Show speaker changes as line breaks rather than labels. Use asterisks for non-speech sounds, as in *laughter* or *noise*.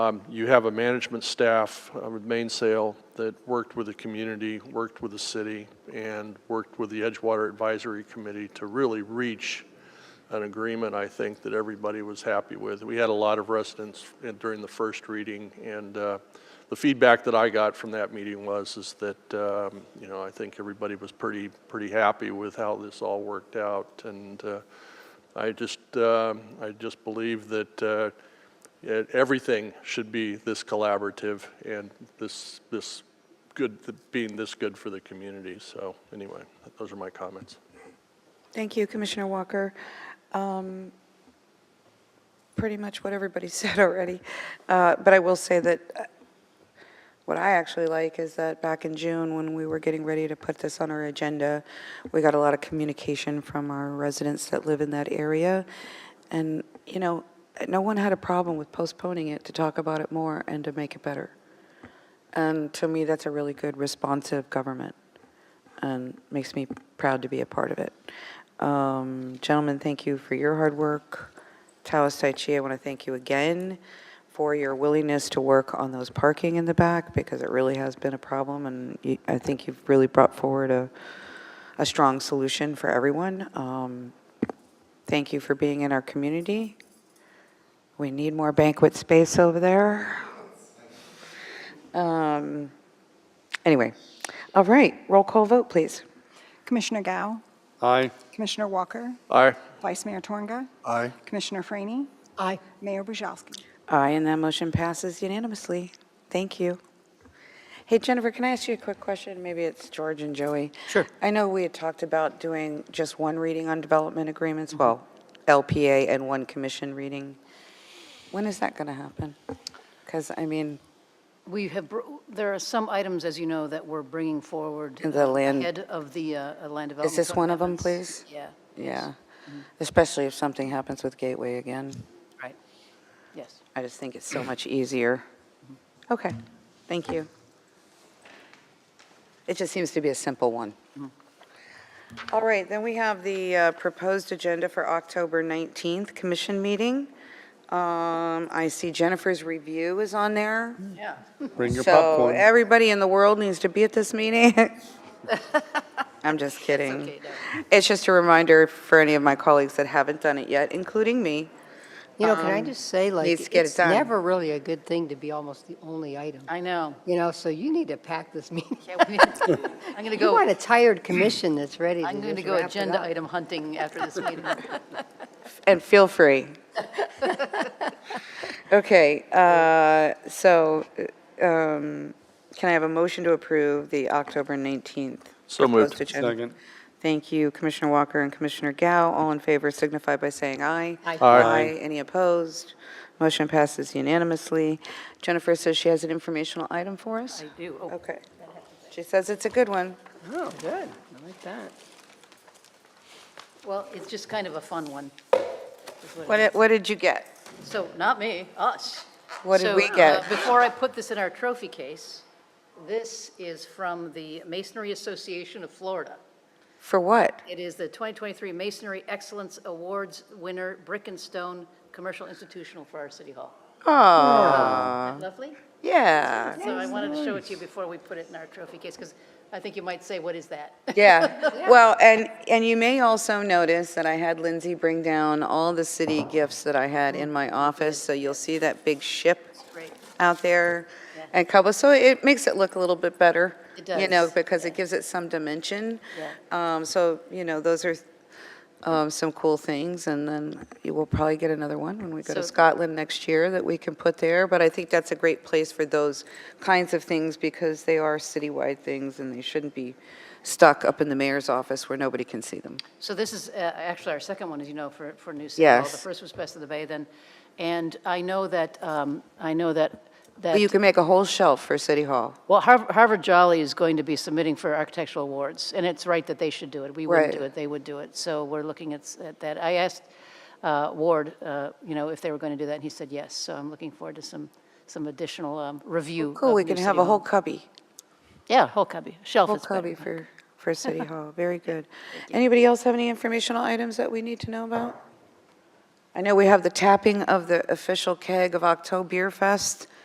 Um, You have a management staff uh, with Mainsail that worked with the community, worked with the city, and worked with the Edgewater Advisory Committee to really reach an agreement, I think, that everybody was happy with. We had a lot of residents in- during the first reading, and uh, the feedback that I got from that meeting was, is that, um, you know, I think everybody was pretty, pretty happy with how this all worked out, and uh, I just, um, I just believe that uh, it- everything should be this collaborative and this, this good, being this good for the community. So anyway, those are my comments.
Thank you, Commissioner Walker. Um, Pretty much what everybody *laughs* said already, Uh, but I will say that uh, what I actually like is that back in June, when we were getting ready to put this on our agenda, we got a lot of communication from our residents that live in that area, and, you know, no one had a problem with postponing it to talk about it more and to make it better. And to me, that's a really good responsive government and makes me proud to be a part of it. Um, Gentlemen, thank you for your hard work. Talis Tai Chi, I want to thank you again for your willingness to work on those parking in the back because it really has been a problem, and you- I think you've really brought forward a, a strong solution for everyone. Um, Thank you for being in our community. We need more banquet space over there. Um, Anyway, all right, roll call vote, please.
Commissioner Gao,
Aye.
Commissioner Walker,
Aye.
Vice Mayor Torga,
Aye.
Commissioner Franny. Aye. Mayor Bujalski.
Aye, and that motion passes unanimously. Thank you. Hey, Jennifer, can I ask you a quick question? Maybe it's George and Joey. Sure. I know we had talked about doing just one reading on development agreements, well, LPA and one commission reading. When is that going to happen? Because, I mean,
We have, br- there are some items, as you know, that we're bringing forward.
In the land-
Ahead of the uh, uh, land development.
this
code
one of 'em,
amendments.
please?
Yeah,
yeah, especially if something happens with Gateway again.
right. Yes.
I just think it's so much easier. Okay, thank you. It just seems to be a simple one. All right, then we have the uh, proposed agenda for October 19th, commission meeting. Um, I see Jennifer's review is on there.
Yeah.
Bring your
So
popcorn.
everybody in the world needs to be at this meeting. *laughs* I'm just kidding.
okay,
It's just a reminder for any of my colleagues that haven't done it yet, including me.
You know, can I
um,
just say, like,
needs to get it
it's
done.
never really a good thing to be almost the only item.
I know.
You know, so you need to pack this *laughs* meeting.
Yeah, we- *laughs* I'm going to
You want
go,
a
*clears throat*
tired commission that's ready to
I'm going to
just
go
wrap it
agenda
up.
item hunting after this
*laughs*
meeting.
And feel free. Okay, uh, so um, can I have a motion to approve the October 19th?
So moved.
proposed agenda?
Second.
Thank you, Commissioner Walker and Commissioner Gao. All in favor signify by saying aye.
Aye.
Aye.
Any opposed? Motion passes unanimously. Jennifer says she has an informational item for us?
I do. Oh,
Okay. She says it's a good one.
Oh, good. I like that.
Well, it's just kind of a fun one. is it
What
is.
did- What did you get?
So, not me, us.
What did
So,
we
uh,
get?
Before I put this in our trophy case, this is from the Masonry Association of Florida.
For what?
It is the 2023 Masonry Excellence Awards winner, Brick and Stone Commercial Institutional for our City Hall.
Oh,
Isn't that Lovely?
yeah,
So I wanted to show it to you before we put it in our trophy case, because I think you might say, what is that? *laughs*
yeah. Well, and, and you may also notice that I had Lindsay bring down all the city gifts that I had in my office, so you'll see that big ship
Great.
out there
Yeah.
and Cabo. So it makes it look a little bit better.
It
You know,
does,
because it gives it some dimension.
Yeah.
Um, So, you know, those are um, some cool things. And then you will probably get another one when we go to
So-
Scotland next year that we can put there. But I think that's a great place for those kinds of things because they are citywide things and they shouldn't be stuck up in the mayor's office where nobody can see them.
So this is uh, actually our second one, as you know, for, for New City Hall. The
Yes.
first was Best of the Bay then. And I know that, um, I know that, that.
You can make a whole shelf for City Hall.
Well, Harv- Harvard Jolly is going to be submitting for architectural awards, and it's right that they should do it. We wouldn't
Right.
do it, they would do it. So we're looking at s- at that. I asked uh, Ward, uh, you know, if they were going to do that, and he said yes. So I'm looking forward to some, some additional um, review.
Cool,
of
we
new
can
city
have a whole
hall.
cubby.
Yeah, whole cubby, shelf
Full
is better.
copy for, for
*laughs*
City Hall, very good. Anybody else have any informational items that we need to know about? I know we have the tapping of the official keg of Oktoberfest.